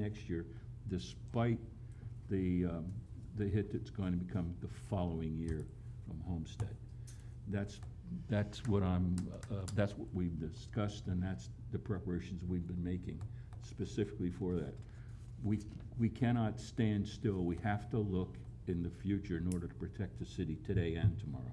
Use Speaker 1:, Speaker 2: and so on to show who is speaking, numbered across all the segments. Speaker 1: next year, despite the, um, the hit that's going to become the following year from Homestead. That's, that's what I'm, uh, that's what we've discussed, and that's the preparations we've been making specifically for that. We, we cannot stand still. We have to look in the future in order to protect the city today and tomorrow.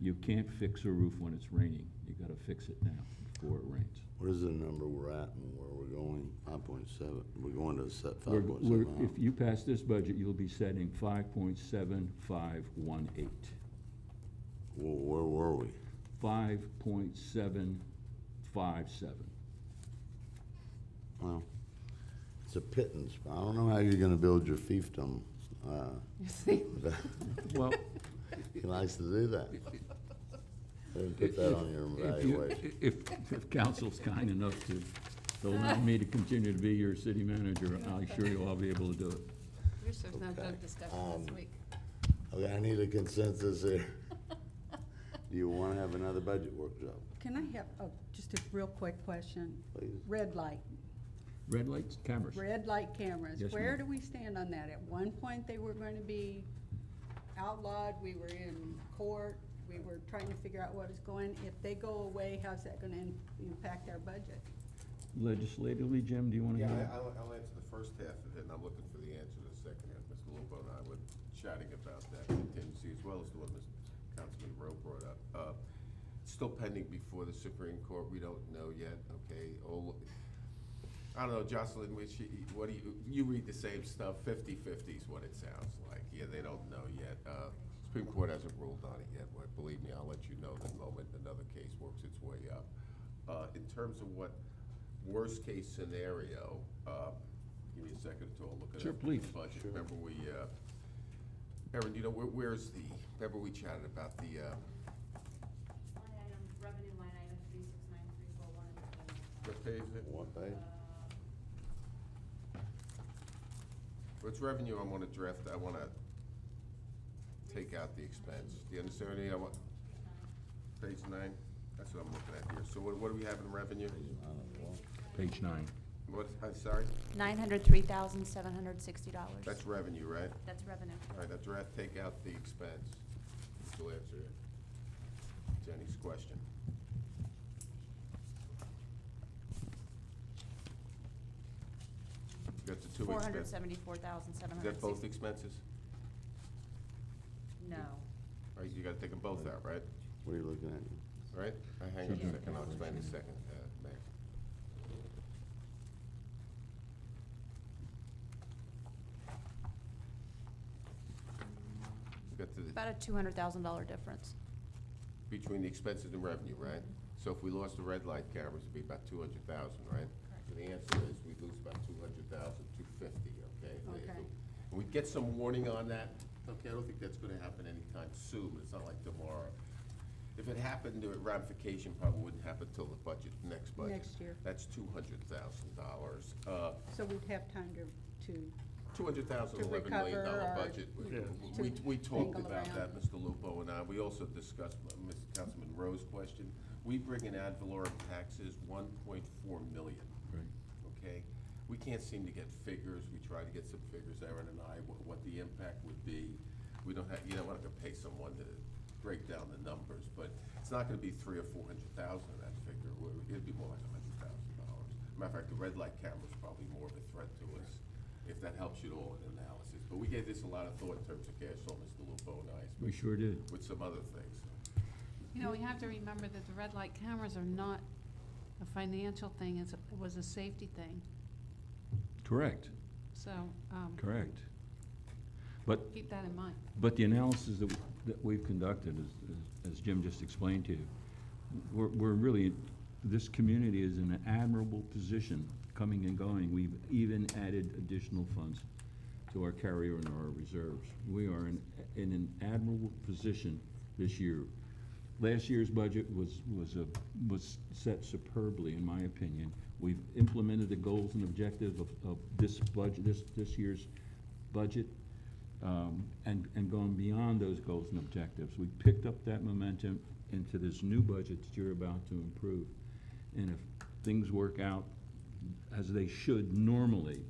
Speaker 1: You can't fix a roof when it's raining. You gotta fix it now before it rains.
Speaker 2: What is the number we're at and where we're going? Five point seven, we're going to set
Speaker 1: We're-
Speaker 2: five point
Speaker 1: we're- If
Speaker 2: seven.
Speaker 1: you pass this budget, you'll be setting five point seven five one eight.
Speaker 2: Where, where were we?
Speaker 1: Five point seven five seven.
Speaker 2: Well, it's a pittance. I don't know how you're gonna build your fiefdom. Uh,
Speaker 3: You see,
Speaker 1: Well,
Speaker 2: He likes to do that. Didn't put that on your
Speaker 1: if you,
Speaker 2: evaluation.
Speaker 1: if, if council's kind enough to to allow me to continue to be your city manager, I'm sure you'll all be able to do it.
Speaker 3: wish there was no
Speaker 2: Okay,
Speaker 3: drug discussion this
Speaker 2: um,
Speaker 3: week.
Speaker 2: Okay, I need a consensus here. Do you wanna have another budget workshop,
Speaker 4: Can I have, oh, just a real quick question?
Speaker 2: please?
Speaker 4: Red light,
Speaker 1: Red lights, cameras.
Speaker 4: red light cameras.
Speaker 1: Yes,
Speaker 4: Where
Speaker 1: ma'am.
Speaker 4: do we stand on that? At one point, they were going to be outlawed, we were in court, we were trying to figure out what is going. If they go away, how's that going to impact our budget?
Speaker 1: Legislatively, Jim, do you want to?
Speaker 5: Yeah, I- I'll, I'll answer the first half of it, and I'm looking for the answer to the second half. Mr. Lupo and I were chatting about that contingency, as well as the one Mr. Councilman Rowe brought up. Uh, it's Still pending before the Supreme Court, we don't know yet, okay? All- I don't know, Jocelyn, which, what do you, you read the same stuff, 50/50 is what it sounds like. Yeah, they don't know yet. Uh, Supreme Court hasn't ruled on it yet, but believe me, I'll let you know the moment another case works its way up. Uh, In terms of what worst-case scenario, uh, give me a second to all look at it.
Speaker 1: Sure, please.
Speaker 5: Budget, remember we, uh, Erin, you know, where- where's the, remember we chatted about the, uh,
Speaker 6: Line item, revenue line item three six nine three four one.
Speaker 5: what page is it?
Speaker 2: What page?
Speaker 5: What's revenue I want to draft, I want to take out the expense. Do you understand what I mean? I want, page nine, that's what I'm looking at here. So what, what do we have in revenue?
Speaker 1: Page nine.
Speaker 5: What, I'm sorry,
Speaker 6: Nine hundred three thousand seven hundred sixty dollars.
Speaker 5: that's revenue, right?
Speaker 6: That's revenue.
Speaker 5: All right, I'd draft, take out the expense. We'll answer it. Jenny's question. Got the two expenses.
Speaker 6: Four hundred seventy-four thousand seven
Speaker 5: Is
Speaker 6: hundred
Speaker 5: that both
Speaker 6: sixty.
Speaker 5: expenses?
Speaker 6: No.
Speaker 5: All right, you gotta take them both out, right?
Speaker 2: What are you looking at?
Speaker 5: All right, I hang on a second, I'll explain in a second, uh, Mayor. Got to the,
Speaker 6: About a two hundred thousand dollar difference.
Speaker 5: between the expenses and revenue, right? So if we lost the red light cameras, it'd be about two hundred thousand, right? So the answer is we lose about two hundred thousand, two fifty, okay?
Speaker 4: Okay.
Speaker 5: We get some warning on that, okay, I don't think that's gonna happen anytime soon, but it's not like tomorrow. If it happened, the ramification probably wouldn't happen till the budget, next budget.
Speaker 4: Next year.
Speaker 5: That's two hundred thousand dollars. Uh,
Speaker 4: So we'd have time to, to,
Speaker 5: Two hundred thousand,
Speaker 4: To
Speaker 5: eleven million
Speaker 4: recover
Speaker 5: dollar
Speaker 4: or-
Speaker 5: budget. We-
Speaker 4: Yeah.
Speaker 5: We,
Speaker 4: To
Speaker 5: we talked
Speaker 4: mingle
Speaker 5: about that,
Speaker 4: around.
Speaker 5: Mr. Lupo and I. We also discussed Mr. Councilman Rowe's question. We bring in ad valorem taxes, one point four million,
Speaker 1: Right.
Speaker 5: okay? We can't seem to get figures. We tried to get some figures, Aaron and I, what, what the impact would be. We don't have, you know, I could pay someone to break down the numbers, but it's not gonna be three or four hundred thousand of that figure. It- It'd be more like a hundred thousand dollars. Matter of fact, the red light camera's probably more of a threat to us, if that helps you at all in analysis. But we gave this a lot of thought in terms of cash, so Mr. Lupo and I,
Speaker 1: We sure did.
Speaker 5: with some other things.
Speaker 3: You know, we have to remember that the red light cameras are not a financial thing, it's, it was a safety thing,
Speaker 1: Correct,
Speaker 3: so, um,
Speaker 1: correct. But
Speaker 3: keep that in mind.
Speaker 1: But the analysis that, that we've conducted, as- as Jim just explained to you, we're, we're really, this community is in an admirable position, coming and going. We've even added additional funds to our carryover and our reserves. We are in, in an admirable position this year. Last year's budget was, was a, was set superbly, in my opinion. We've implemented the goals and objectives of, of this budget, this, this year's budget um, and, and going beyond those goals and objectives. We picked up that momentum into this new budget that you're about to improve. And if things work out as they should normally,